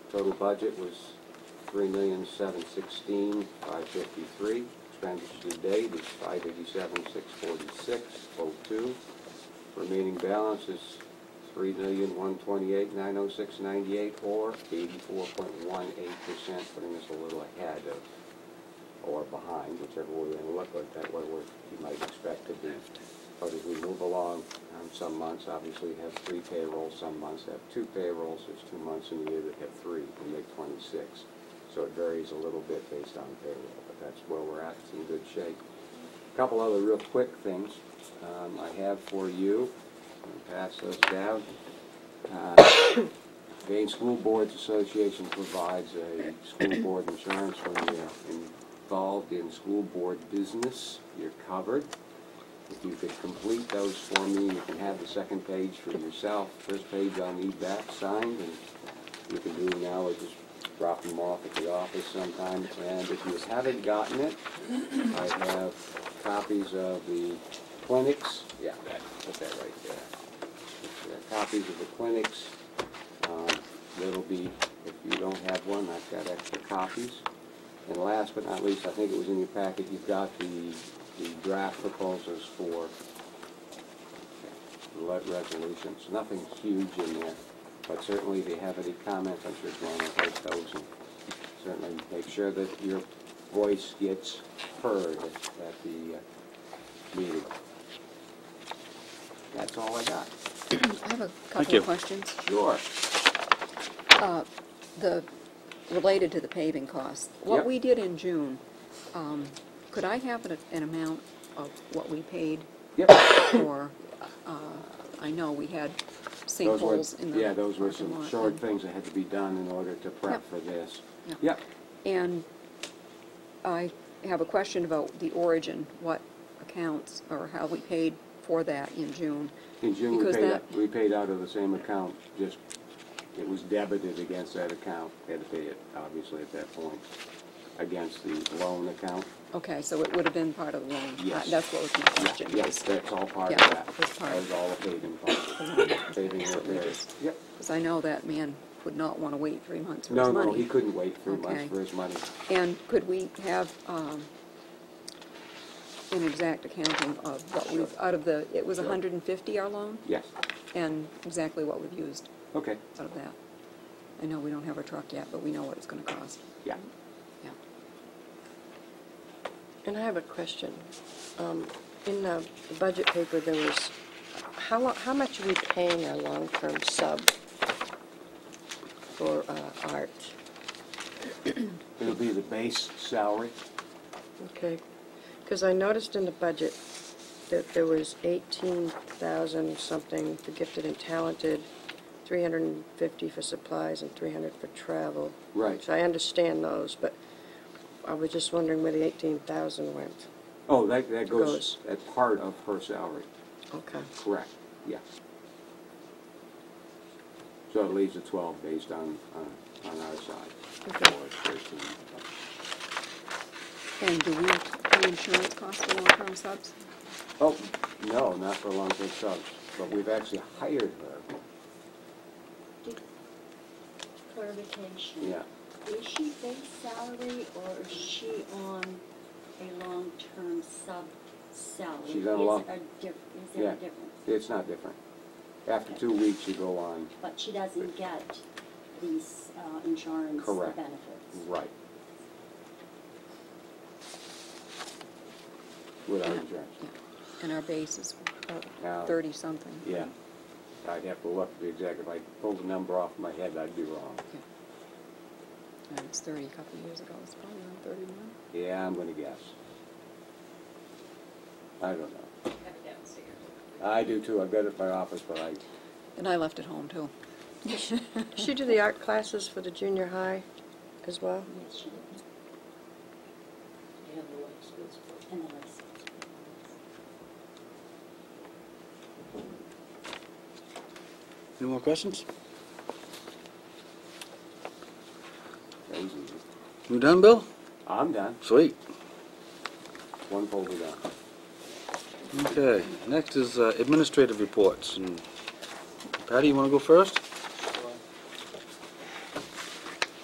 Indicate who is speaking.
Speaker 1: Total budget was three million, seven sixteen, five fifty-three. Expenditure to date is five eighty-seven, six forty-six, oh two. Remaining balance is three million, one twenty-eight, nine oh six, ninety-eight, or eighty-four point one eight percent, putting us a little ahead of, or behind, whichever way we look at that, what we're, you might expect to be. But as we move along, um, some months obviously have three payrolls, some months have two payrolls, there's two months in the year that have three, we make twenty-six. So it varies a little bit based on payroll, but that's where we're at, it's in good shape. Couple other real quick things um, I have for you, I'll pass those down. Uh, Maine School Boards Association provides a school board insurance when you're involved in school board business, you're covered. If you could complete those for me, you can have the second page for yourself, first page I'll need back signed, and you can do now or just drop them off at the office sometime. And if you haven't gotten it, I have copies of the clinics, yeah, that- put that right there. There are Copies of the clinics, um, that'll be, if you don't have one, I've got extra copies. And last but not least, I think it was in your packet, you've got the, the draft proposals for le- resolutions. Nothing huge in there, but certainly if you have any comments, I'm sure Joanna will take those and certainly make sure that your voice gets heard at at the uh, meeting. That's all I got.
Speaker 2: I have a
Speaker 3: Thank
Speaker 2: couple
Speaker 3: you.
Speaker 2: of questions.
Speaker 1: Sure.
Speaker 2: Uh, The, related to the paving costs.
Speaker 1: Yep.
Speaker 2: What we did in June, um, could I have an an amount of what we paid?
Speaker 1: Yep.
Speaker 2: Or, uh, I know we had
Speaker 1: Those were-
Speaker 2: sinkholes in the.
Speaker 1: Yeah, those were
Speaker 2: parking
Speaker 1: some
Speaker 2: lot
Speaker 1: short
Speaker 2: and-
Speaker 1: things that had to be done in order to prep
Speaker 2: Yep.
Speaker 1: for this.
Speaker 2: Yeah.
Speaker 1: Yep,
Speaker 2: And I have a question about the origin, what accounts or how we paid for that in June.
Speaker 1: in June, we
Speaker 2: Because
Speaker 1: paid,
Speaker 2: that-
Speaker 1: out- we paid out of the same account, just, it was debited against that account, had to pay it, obviously, at that point, against the loan account.
Speaker 2: Okay, so it would have been part of the loan.
Speaker 1: Yes.
Speaker 2: That's what was my question.
Speaker 1: Yes, that's all part of
Speaker 2: Yeah,
Speaker 1: that.
Speaker 2: it's part
Speaker 1: That
Speaker 2: of-
Speaker 1: was all the paving part, paving
Speaker 2: So we
Speaker 1: repairs.
Speaker 2: just-
Speaker 1: Yep.
Speaker 2: Because I know that man would not want to wait three months for his
Speaker 1: No,
Speaker 2: money.
Speaker 1: no, he couldn't wait three months
Speaker 2: Okay.
Speaker 1: for his money.
Speaker 2: And could we have um, an exact accounting of what we've, out of the, it was
Speaker 1: Sure.
Speaker 2: 150 our loan?
Speaker 1: Yes,
Speaker 2: And exactly what we've used
Speaker 1: okay,
Speaker 2: out of that? I know we don't have a truck yet, but we know what it's going to cost.
Speaker 1: yeah.
Speaker 2: Yeah.
Speaker 4: And I have a question. Um, In the budget paper, there was, how, lo- how much are we paying our long-term sub for uh, art?
Speaker 1: It'll be the base salary.
Speaker 4: Okay, because I noticed in the budget that there was 18,000 something for gifted and talented, 350 for supplies and 300 for travel.
Speaker 1: Right.
Speaker 4: So I understand those, but I was just wondering where the 18,000 went.
Speaker 1: Oh, that, that goes,
Speaker 4: Goes.
Speaker 1: that's part of her salary,
Speaker 4: Okay.
Speaker 1: correct, yes. So it leaves a twelve based on, on, on our side.
Speaker 4: Okay.
Speaker 1: Or it's thirteen.
Speaker 2: And do we, do insurance costs for long-term subs?
Speaker 1: Oh, no, not for long-term subs, but we've actually hired her,
Speaker 5: Clarification.
Speaker 1: yeah.
Speaker 5: Is she base salary or is she on a long-term sub salary?
Speaker 1: She's on a
Speaker 5: Is
Speaker 1: long-
Speaker 5: a diff- Is there
Speaker 1: Yeah,
Speaker 5: a difference?
Speaker 1: it's not different. After two weeks, you go on,
Speaker 5: But she doesn't get these uh, insurance
Speaker 1: Correct.
Speaker 5: benefits?
Speaker 1: right. Without insurance.
Speaker 2: Yeah. And our base is about
Speaker 1: Now-
Speaker 2: 30-something.
Speaker 1: Yeah. I'd have to look at the exact, if I pulled the number off my head, I'd be wrong.
Speaker 2: Yeah. And it's 30, a couple of years ago, it's probably around 31.
Speaker 1: Yeah, I'm gonna guess. I don't know. I do too, I've got it at my office, but I,
Speaker 2: And I left it home, too.
Speaker 4: Does she do the art classes for the junior high as well?
Speaker 5: Yes, she does.
Speaker 6: And the life skills part.
Speaker 5: And the rest.
Speaker 3: Any more questions?
Speaker 1: that was easy.
Speaker 3: You done, Bill?
Speaker 1: I'm done,
Speaker 3: Sweet.
Speaker 1: one folder down.
Speaker 3: Okay, next is uh, administrative reports. And Patty, you want to go first?